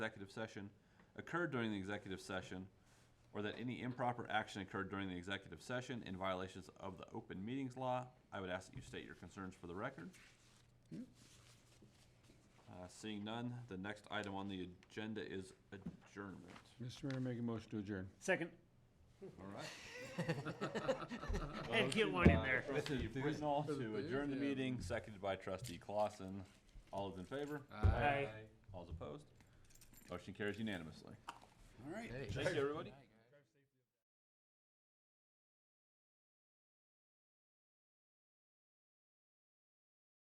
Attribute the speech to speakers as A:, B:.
A: executive session occurred during the executive session, or that any improper action occurred during the executive session in violations of the open meetings law, I would ask that you state your concerns for the record. Uh, Seeing none, the next item on the agenda is adjournment.
B: Mr. Mayor, make a motion to adjourn.
C: Second.
A: All right.
C: Hey, get one in there.
A: Trustee Britnall to adjourn the
B: Yeah.
A: meeting, seconded by trustee Clausen. All those in favor?
C: Aye.
A: All opposed? Motion carries unanimously.
B: All right.
A: Thank you, everybody.